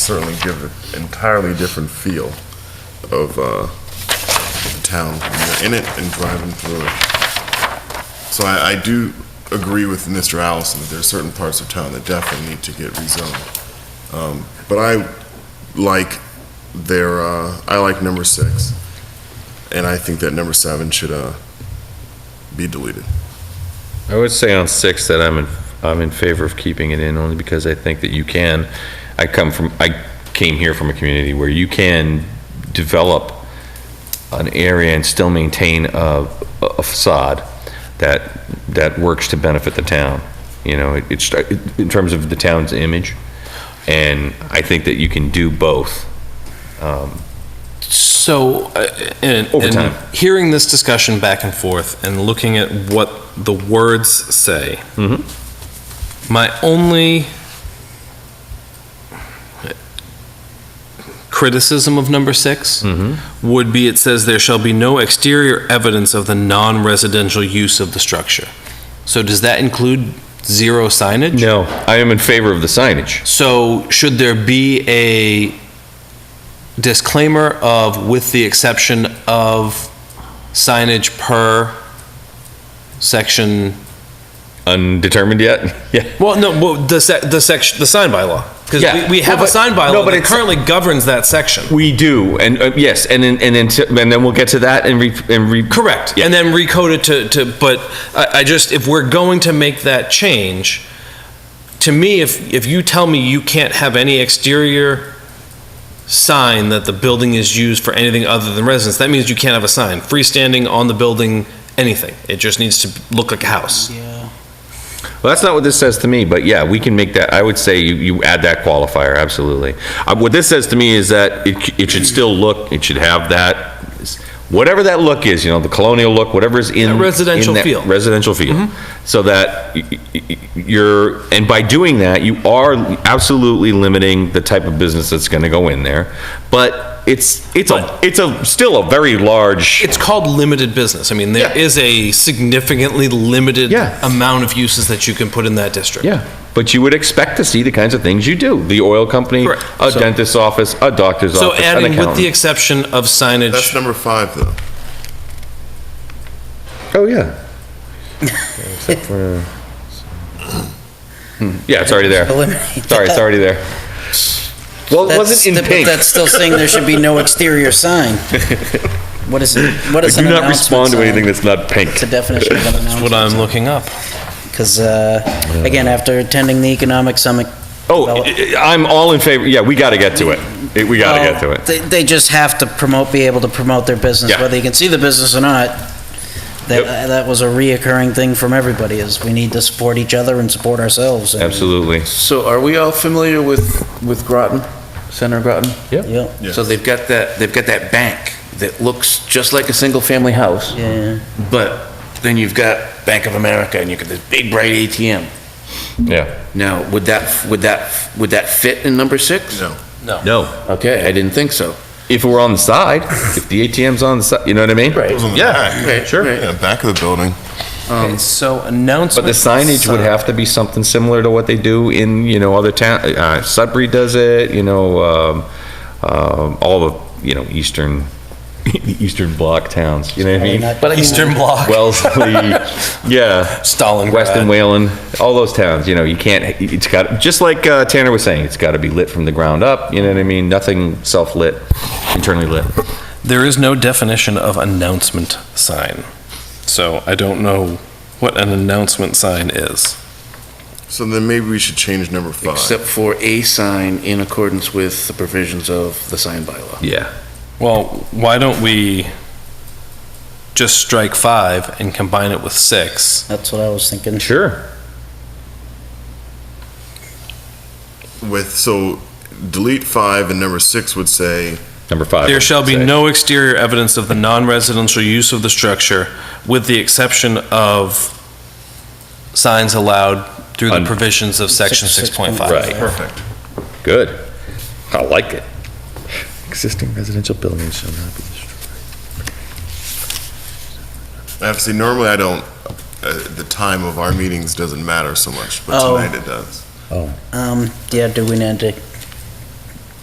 certainly give an entirely different feel of uh, the town when you're in it and driving through it. So I, I do agree with Mr. Allison that there are certain parts of town that definitely need to get rezoned. Um, But I like their, uh, I like number six, and I think that number seven should uh, be deleted. I would say on six that I'm in, I'm in favor of keeping it in only because I think that you can, I come from, I came here from a community where you can develop an area and still maintain a a facade that, that works to benefit the town. You know, it- it's, in terms of the town's image. And I think that you can do both. So, uh, and, Over time. and hearing this discussion back and forth and looking at what the words say, Mhm. Mm-hmm. my only criticism of number 6 Mm. would be it says there shall be no exterior evidence of the non-residential use of the structure. So does that include zero signage? No, I am in favor of the signage. So should there be a disclaimer of, with the exception of signage per section? Undetermined yet? Yeah. Well, no, well, the sec, the section, the sign bylaw. Because Yeah. we, we have Well, a but- sign no, bylaw but that it's- currently governs that section. We do, and uh, yes, and then and then t- and then we'll get to that and re, and re. Correct. Yeah. And then recode it to, to, but I, I just, if we're going to make that change, to me, if, if you tell me you can't have any exterior sign that the building is used for anything other than residence, that means you can't have a sign, freestanding on the building, anything. It just needs to look like a house. Well, that's not what this says to me, but yeah, we can make that. I would say you, you add that qualifier absolutely. Uh, what this says to me is that it, c- it should still look. It should have that, whatever that look is. You know, the colonial look, whatever is in That residential in that feel. Mm-hmm. Residential feel, so that y- y- y- you're and by doing that, you are absolutely limiting the type of business that's going to go in there, but. It's it's a it's a still a very large It's called limited business. I mean, there Yeah. is a significantly limited Yeah. amount of uses that you can put in that district. Yeah, but you would expect to see the kinds of things you do. The oil company, Correct. a So- dentist's office, a doctor's So office, an adding with the accountant. exception of signage. That's number five, though. Oh, yeah. Except for- Hmm, Yeah, it's already there. Eliminate Sorry, it's that. already there. Well, it That's- wasn't in but pink. That's still saying there should be no exterior sign. What is it? What I is do an not announcement respond to sign? anything that's not pink. It's a definition of an That's what announcement. I'm looking up. Because, again, after attending the economic summit. Oh, I- I- I'm all in favor, yeah, we gotta get to it. It- We gotta get to well, it. They, they just have to promote, be able to promote their business, Yeah. whether you can see the business or not. That, uh, Yep. that was a reoccurring thing from everybody, is we need to support each other and support ourselves. and- Absolutely. So are we all familiar with, with Groton, Senator Groton? Yeah, So they've got that, they've got that bank that looks just like a single-family house, yeah. but then you've got Bank of America and you've got this big bright ATM. Yeah. Now, would that, would that, would that fit in number six? No. No, Okay, I didn't think so. if we're on the side, if the ATM's on the side, you know what I mean? Those on the Yeah, back. Right, sure. right. Yeah, back of the building. Okay, so announcement. Um, But the signage would have to be something similar to what they do in, you know, other town, uh, Sudbury does it, you know, um, um, all the, you know, eastern, the eastern block towns, you know what I mean? Not- Eastern Bloc, Wellesley, yeah, Stalingrad. Weston Whalen, all those towns, you know, you can't, it's got, just like uh, Tanner was saying, it's got to be lit from the ground up, you know what I mean? Nothing self-lit, internally lit. There is no definition of announcement sign, so I don't know what an announcement sign is. So then maybe we should change number five. Except for a sign in accordance with the provisions of the sign bylaw. Yeah. Well, why don't we just strike five and combine it with six? That's what I was thinking. Sure. With, so delete five and number six would say, Number five. There shall be I'd say. no exterior evidence of the non-residential use of the structure, with the exception of signs allowed through the Un- provisions of section Six- six point six five. Right. point Perfect. Good. I like it. Existing residential buildings shall not be destroyed. I have to say, normally I don't, uh, the time of our meetings doesn't matter so much, but Oh. tonight it does. Um, yeah, do we need to